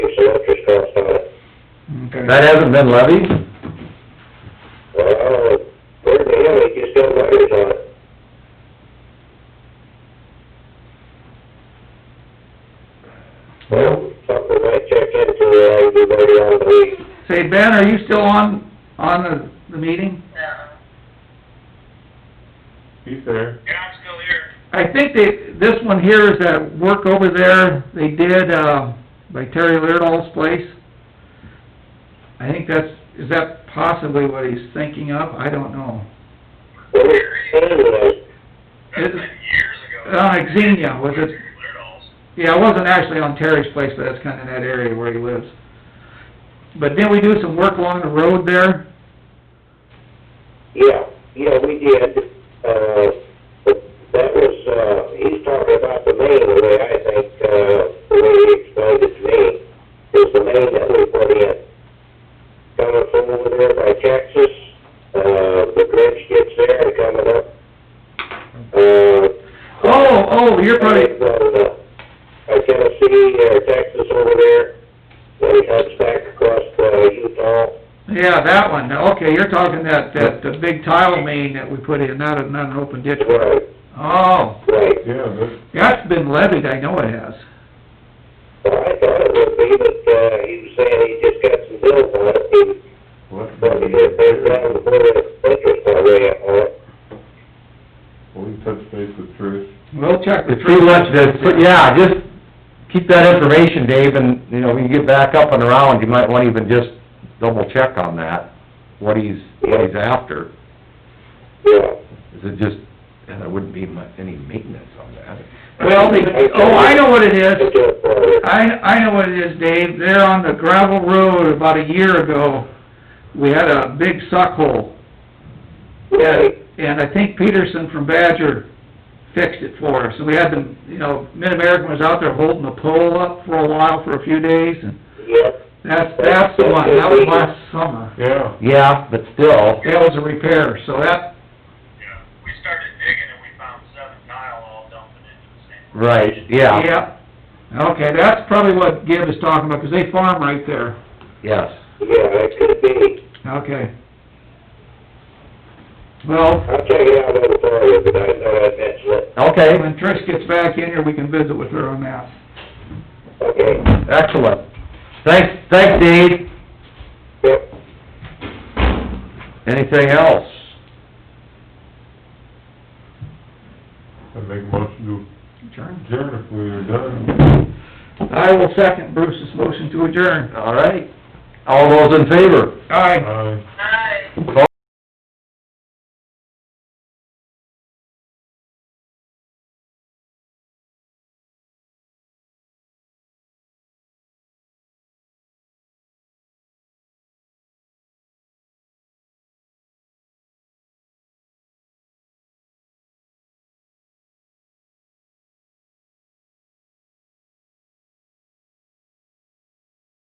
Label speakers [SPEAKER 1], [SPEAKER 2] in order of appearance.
[SPEAKER 1] That hasn't been levied?
[SPEAKER 2] Well, where the hell they just got wires on it? Well, something might check into everybody on the week.
[SPEAKER 3] Say, Ben, are you still on, on the, the meeting?
[SPEAKER 4] Yeah,
[SPEAKER 5] He's there.
[SPEAKER 4] yeah, I'm still here.
[SPEAKER 3] I think they, this one here is that work over there they did, uh, by Terry Lirdall's place. I think that's, is that possibly what he's thinking of? I don't know.
[SPEAKER 2] Well, it's was,
[SPEAKER 4] That's
[SPEAKER 3] Is-
[SPEAKER 4] like years ago.
[SPEAKER 3] Uh, Xenia, was it?
[SPEAKER 4] Weird dolls.
[SPEAKER 3] Yeah, it wasn't actually on Terry's place, but that's kinda in that area where he lives. But didn't we do some work along the road there?
[SPEAKER 2] yeah, yeah, we did, uh, but that was, uh, he's talking about the main, the way I think, uh, the way he explained it to me, is the main that we put in. Coming from over there by Texas, uh, the bridge gets there and coming up, uh.
[SPEAKER 3] Oh, oh, you're probably,
[SPEAKER 2] From, uh, Tennessee or Texas over there, then he cuts back across, uh, Utah.
[SPEAKER 3] yeah, that one, okay, you're talking that, that, the big tile main that we put in, not, a- not an open ditch.
[SPEAKER 2] Right,
[SPEAKER 3] Oh.
[SPEAKER 2] right.
[SPEAKER 5] Yeah, this,
[SPEAKER 3] That's been levied, I know it has.
[SPEAKER 2] Well, Uh, I thought it would be, but, uh, he was saying he just got some bills on it, he,
[SPEAKER 5] well, that's
[SPEAKER 2] but
[SPEAKER 5] about
[SPEAKER 2] he
[SPEAKER 5] a
[SPEAKER 2] did pay
[SPEAKER 5] year
[SPEAKER 2] down
[SPEAKER 5] ago.
[SPEAKER 2] before the interest already on it.
[SPEAKER 5] Well, we touched base with Trish.
[SPEAKER 3] We'll check the
[SPEAKER 1] If we want to, but yeah, just keep that information, Dave, and, you know, when you get back up and around, you might want to even just double check on that, what he's, what he's after.
[SPEAKER 2] Yeah,
[SPEAKER 1] Is it just, and there wouldn't be mu any maintenance on that.
[SPEAKER 3] Well, they, oh, I know what it
[SPEAKER 2] it's
[SPEAKER 3] is.
[SPEAKER 2] just, uh,
[SPEAKER 3] I, I know what it is, Dave. There on the gravel road about a year ago, we had a big suck hole.
[SPEAKER 2] right,
[SPEAKER 3] And I think Peterson from Badger fixed it for us. And we had them, you know, Mid-American was out there holding the pole up for a while, for a few days, and
[SPEAKER 2] yeah,
[SPEAKER 3] that's, that's the one. That was last summer.
[SPEAKER 5] Yeah,
[SPEAKER 1] Yeah, but still,
[SPEAKER 3] That was a repair, so that,
[SPEAKER 4] Yeah, we started digging and we found seven tile all dumping into the same.
[SPEAKER 1] right, yeah,
[SPEAKER 3] yeah. Okay, that's probably what Gibb is talking about, 'cause they farm right there.
[SPEAKER 1] yes.
[SPEAKER 2] yeah, it could be.
[SPEAKER 3] Okay. Well,
[SPEAKER 2] I'll check it out over there, but I thought I'd mention it.
[SPEAKER 1] Okay,
[SPEAKER 3] when Trish gets back in here, we can visit with her on that.
[SPEAKER 2] Okay,
[SPEAKER 1] excellent. Thanks, thanks, Dave.
[SPEAKER 2] yep.
[SPEAKER 1] Anything else?
[SPEAKER 5] I make motion to
[SPEAKER 3] Adjourn.
[SPEAKER 5] adjourn if we are done.
[SPEAKER 3] I will second Bruce's motion to adjourn.
[SPEAKER 1] All right. All those in favor?
[SPEAKER 3] Aye.
[SPEAKER 5] Aye.
[SPEAKER 4] Nice.